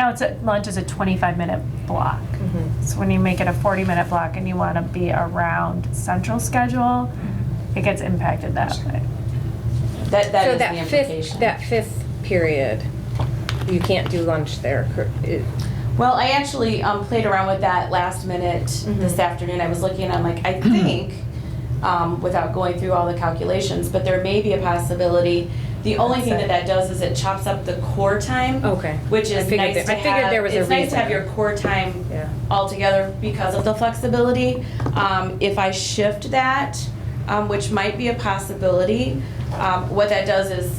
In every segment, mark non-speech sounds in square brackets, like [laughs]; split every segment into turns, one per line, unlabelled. now it's at, lunch is a 25 minute block.
Mm-hmm.
So when you make it a 40 minute block and you want to be around central schedule,
Mm-hmm.
it gets impacted that way.
That, that
So
is the
that fifth,
implication.
that fifth period, you can't do lunch there. cor- it-
Well, I actually um, played around with that last minute
Mm-hmm.
this afternoon. I was looking and I'm like, I
[clears throat]
think, um, without going through all the calculations, but there may be a possibility. The only thing that that does is it chops up the core time,
Okay.
which
I
is
figured
nice
there-
to
I figured
have.
there was a
it's nice to
reason.
have your core time
Yeah.
altogether because of the flexibility. Um, if I shift that, um, which might be a possibility, um, what that does is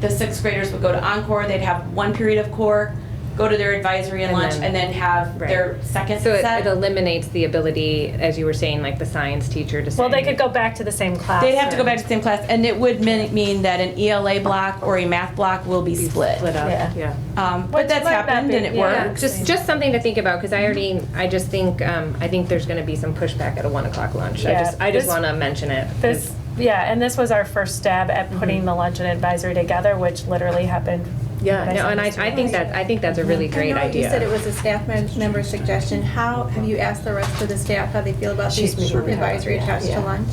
the sixth graders would go to Encore, they'd have one period of core, go to their advisory and
And
lunch,
then-
and then have their second
So it- it
set.
eliminates the ability, as you were saying, like the science teacher to say.
Well, they could go back to the same class.
They'd have to go back to the same class, and it would min- mean that an ELA block or a math block will be split.
Split
Yeah.
up, yeah.
Um,
Which
But that's
might not
happened
be-
and it
yeah.
worked.
Just, just something to think about, because I already, I just think, um, I think there's gonna be some pushback at a one o'clock lunch. I
Yeah.
just, I just
This-
wanna mention it.
This, yeah, and this was our first stab at
Mm-hmm.
putting the lunch and advisory together, which literally happened.
Yeah,
by
no, and I,
Sunday
I think that, I think that's a really great
I know you said it
idea.
was a staff mem- member's suggestion. How, have you asked the rest of the staff how they feel about the
She's serving
advisory
out,
attached
yeah.
to lunch?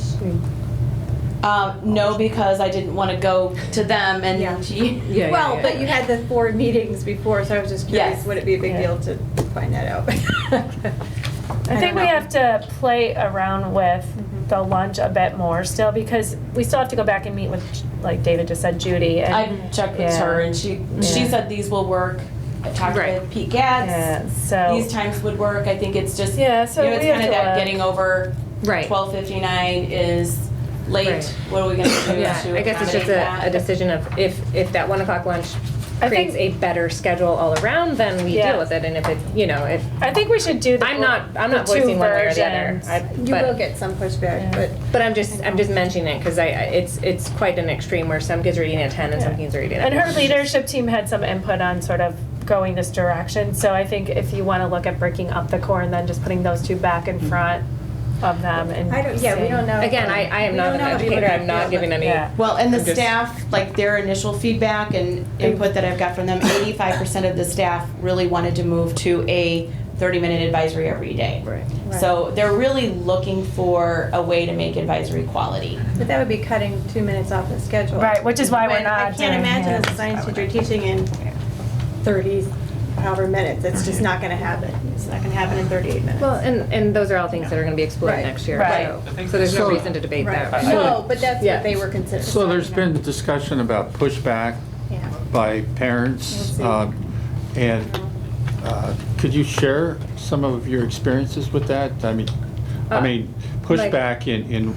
Um, no, because I didn't want to go to them
Yeah.
and you.
Yeah, yeah,
Well,
yeah.
but you had the four meetings before, so I was just
Yes.
curious, would it be a big
Yeah.
deal to find that
[laughs]
out?
I think
don't
we
know.
have to play around with
Mm-hmm.
the lunch a bit more still, because we still have to go back and meet with, like David just said, Judy. and-
I checked with
Yeah.
her, and she she
Yeah.
said these will work. I talked
Right.
with Pete
Yeah,
Gatz.
so,
These times would work. I think it's just
Yeah, so
you know, it's
we have
kind of
to
that
look.
getting over
Right.
twelve fifty nine is late.
Right.
What are we going to do?
Yeah,
to
I guess it's
accommodate
just a,
that?
a decision of if, if that one o'clock lunch
I
creates a
think-
better schedule all around, then we
Yeah.
deal with it, and if it, you know, if,
I think we should do the.
I'm not, I'm not
the two
voicing one way or the other.
versions.
I-
You
but-
will get some pushback, but
But I'm just, I'm just mentioning it, because I, I- it's, it's quite an extreme where some kids are eating at ten and some
Yeah.
kids are eating at.
And her
one.
leadership team had some input on sort of going this direction, so I think if you wanna look at breaking up the core and then just putting those two back in front of them and.
I don't, yeah, we
seeing-
don't know.
Again, I, I am
We
not
don't
an
know if you
educator,
would
I'm not
feel
giving
that-
any,
Yeah.
Well, and the
I'm just-
staff, like their initial feedback and input that I've got from them, eighty-five percent of the staff really wanted to move to a thirty-minute advisory every day.
Right.
So they're really looking for a way to make advisory quality.
But that would be cutting two minutes off the schedule.
Right, which is why we're
When I
not
can't
uh,
doing-
imagine
yeah.
as a science teacher teaching in 30, however minutes, it's just not gonna happen. It's not gonna happen in 38 minutes.
well, and, and those are all things that are gonna be explored
Right.
next year,
Right.
so,
I think-
so there's no
So-
reason to debate that.
Right.
I-
No, but that's
Yeah.
what they were considering.
So there's been discussion about pushback
Yeah.
by parents,
We'll
um, and uh, could you share some of your experiences with that? I mean, I
Uh,
mean,
like-
pushback in, in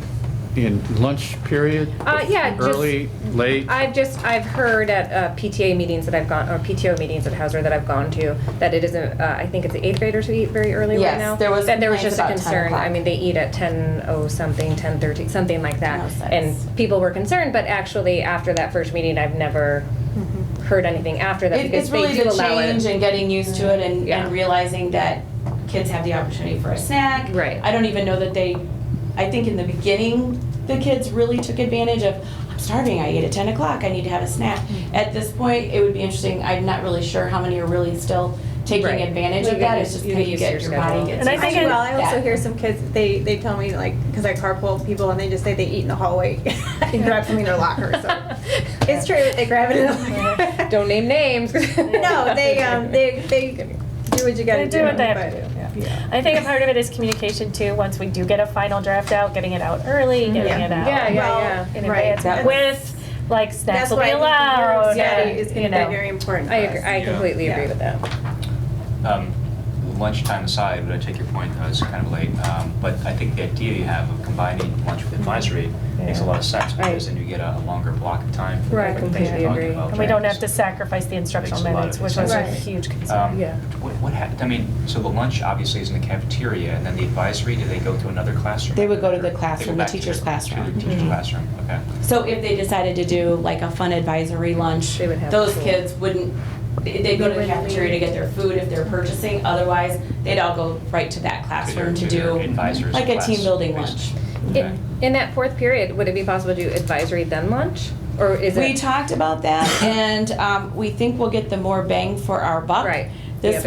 in lunch period?
Uh, yeah, just-
Early, late?
I've just, I've heard at uh, PTA meetings that I've gone, or PTO meetings at Hauser that I've gone to, that it isn't, uh, I think it's the eighth graders who eat very early right
Yes,
now.
there was
That there was
complaints
just a
about 10
concern, I
o'clock.
mean, they eat at ten oh something, ten thirty, something like that.
10:06.
And people were concerned, but actually, after that first meeting, I've never heard anything after that,
Mm-hmm. It-
because
It's
they
really the
do allow it.
change and getting used to it and,
Yeah.
and realizing that kids have the opportunity for a snack.
Right.
I don't even know that they, I think in the beginning, the kids really took advantage of, I'm starving, I ate at ten o'clock, I need to have a snack.
Mm-hmm.
At this point, it would be interesting, I'm not really sure how many are really still taking
Right.
advantage
You
of
get
that,
used-
it's just
you get
kind of
used to
get
your
your body
schedule.
gets.
And I
used
think
to
it-
Well, I also
that.
hear some kids, they, they tell me like, because I carpool people and they just say they eat in the hallway [laughs] and grab something in their locker,
[laughs]
so. It's true, they grab it in the locker.
Don't name names.
[laughs] No, they, um, they, they do what you gotta
They
do.
do what they have
but-
to do,
yeah.
I think a part of it is communication too, once we do get a final draft out, getting it out early, getting
Mm-hmm. Yeah.
it out.
Yeah, yeah,
Well,
yeah.
In
right,
advance,
that's-
with, like, snacks
That's
will be
why
allowed.
I think the Euro study is
you
gonna
know.
be very important
[laughs]
for
I
us.
agree, I
Yeah.
completely agree
Yeah.
with that.
Um, Lunchtime aside, but I take your point, I was kind of late, um, but I think the idea you have of combining lunch with advisory
Mm-hmm.
makes a lot of sense, because
Right.
then you get a longer block of time. for
Right,
the things you're
completely
talking
agree.
about.
And we don't have to sacrifice the instructional
Makes a lot
minutes,
of
which was a
sense.
huge
Um,
concern.
Yeah.
What, what happened, I mean, so the lunch obviously is in the cafeteria, and then the advisory, do they go to another classroom?
They would go to the
Or they
classroom, the
back to
teacher's
their-
classroom.
To the teacher's classroom, okay.
So if they decided to do like a fun advisory lunch,
They would have
those
school.
kids wouldn't, they- they'd go to the cafeteria to get their food if they're purchasing, otherwise, they'd all go right to that classroom to
To their- to
do
their advisor's
like a
class,
team building lunch.
basically. Okay.
In, in that fourth period, would it be possible to do advisory then lunch, or is it?
We talked about that, and um, we think we'll get the more bang for our buck.
Right.